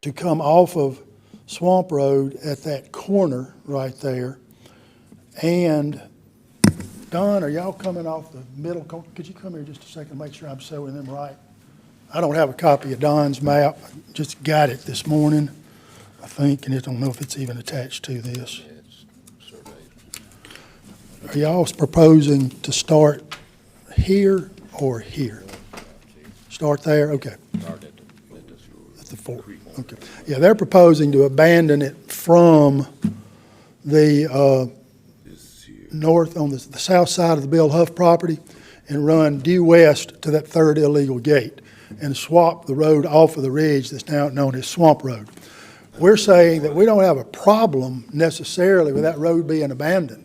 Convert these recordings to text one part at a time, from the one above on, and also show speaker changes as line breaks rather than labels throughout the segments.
to come off of Swamp Road at that corner right there. And Don, are y'all coming off the middle? co- Could you come here just a second, and make sure I'm showing them right? I don't have a copy of Don's map, just got it this morning, I think, and I don't know if it's even attached to this. Are y'all proposing to start here or here? Start there, okay. At the fork, okay. Yeah, they're proposing to abandon it from the uh, north, on the the south side of the Bill Huff property, and run due west to that third illegal gate, and swap the road off of the ridge that's now known as Swamp Road. We're saying that we don't have a problem necessarily with that road being abandoned.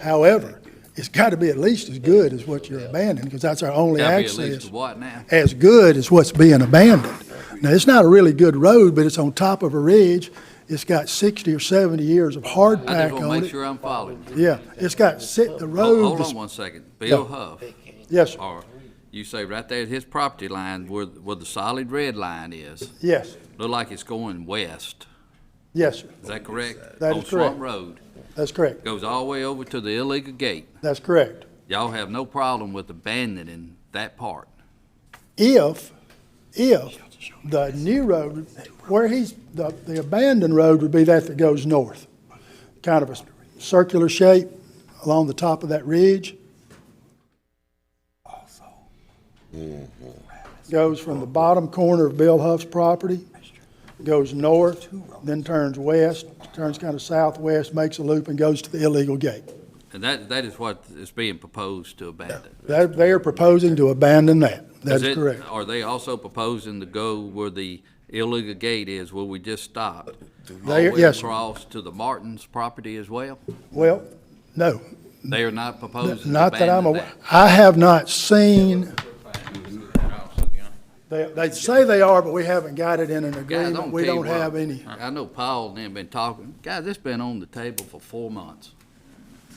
However, it's got to be at least as good as what you're abandoning, because that's our only
Gotta be
access
at least what now?
as good as what's being abandoned. Now, it's not a really good road, but it's on top of a ridge. It's got 60 or 70 years of
I just
hardtack
want to
on
make
it. Oh,
sure I'm following. you.
Yeah, it's got, si- the
Hold
road,
hold
is-
on one second. Bill Huff,
yes, sir.
or you say right there at his property line where, where the solid red line is,
yes,
look like it's going west.
yes, sir.
Is that correct?
That is
On
correct.
Swamp Road,
that's correct,
goes all the way over to the illegal gate.
that's correct.
Y'all have no problem with abandoning that part.
If, if the new road, where he's, the the abandoned road would be that that goes north, kind of a circular shape along the top of that ridge. Mm-hmm. goes from the bottom corner of Bill Huff's property, goes north, then turns west, turns kind of southwest, makes a loop, and goes to the illegal gate.
And that, that is what is being proposed to abandon.
They, they are proposing to abandon that. That
Is
is
it-
correct.
Are they also proposing to go where the illegal gate is, where we just stopped? All
They-
the way
yes.
across to the Martins property as well?
Well, no,
They are not proposing to
not that I'm
abandon
aware,
that?
I have not seen, they, they say they are, but we haven't got it in an
Guys, I'm
agreement.
gonna
We
tell you
don't have
what.
any.
I I know Paul and them been talking, guys, it's been on the table for four months.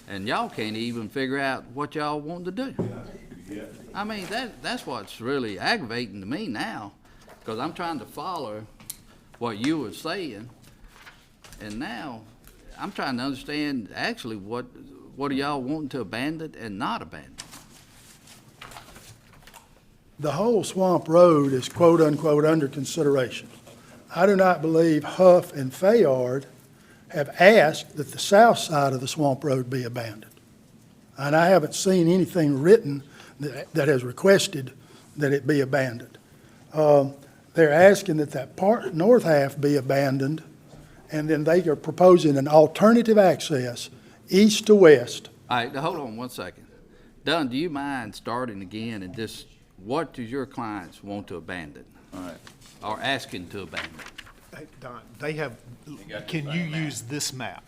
And y'all can't even figure out what y'all want to do. I mean, that, that's what's really aggravating to me now, because I'm trying to follow what you were saying. And now, I'm trying to understand actually what, what are y'all wanting to abandon and not abandon?
The whole Swamp Road is quote-unquote under consideration. I do not believe Huff and Fayard have asked that the south side of the Swamp Road be abandoned. And I haven't seen anything written that, that has requested that it be abandoned. Um, They're asking that that part, north half be abandoned, and then they are proposing an alternative access east to west.
All right, now hold on one second. Dunn, do you mind starting again and just, what do your clients want to abandon? All right. Or asking to abandon?
Hey, Don, they have, can you use this map?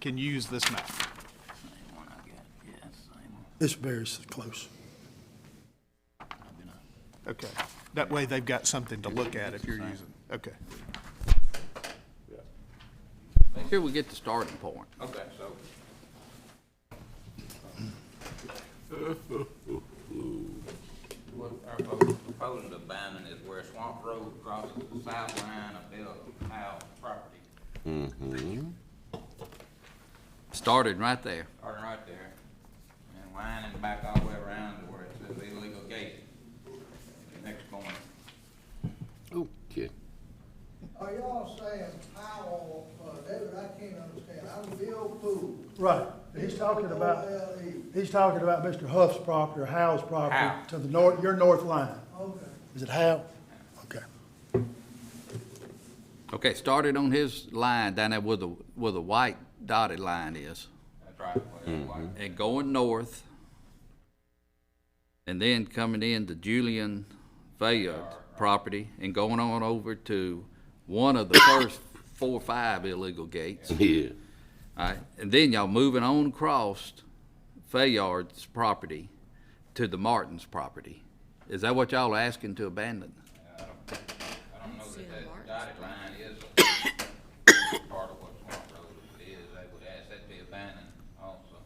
Can you use this map?
It's very s- close.
Okay. That way they've got something to look at if you're using, okay.
Make sure we get the starting point.
Okay, so. What our folks proposing to abandon is where Swamp Road crosses the south line of Bill Howe property,
Started right there.
starting right there, and lining back all the way around to where it says illegal gate, next corner.
Okay.
Are y'all saying Powell, uh, David, I can't understand, I'm Bill Poole.
Right, he's talking about.
P-O-L-E.
He's talking about Mr. Huff's property or Howe's
Howe.
property to the north, your north line.
Okay.
Is it Howe? Okay.
Okay, started on his line down there where the, where the white dotted line is,
That's right, where it's like,
and going north, and then coming in to Julian Fayard property, and going on over to one of the first four or five illegal gates.
Yeah.
All right, and then y'all moving on across Fayard's property to the Martin's property. Is that what y'all are asking to abandon?
I don't know that that dotted line is part of what Swamp Road is, they would ask that to be abandoned also,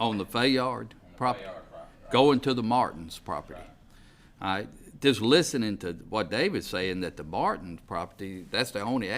On the Fayard
on the
property?
Bayard property.
Going to the Martin's property? All right, just listening to what David's saying, that the Barton property, that's the only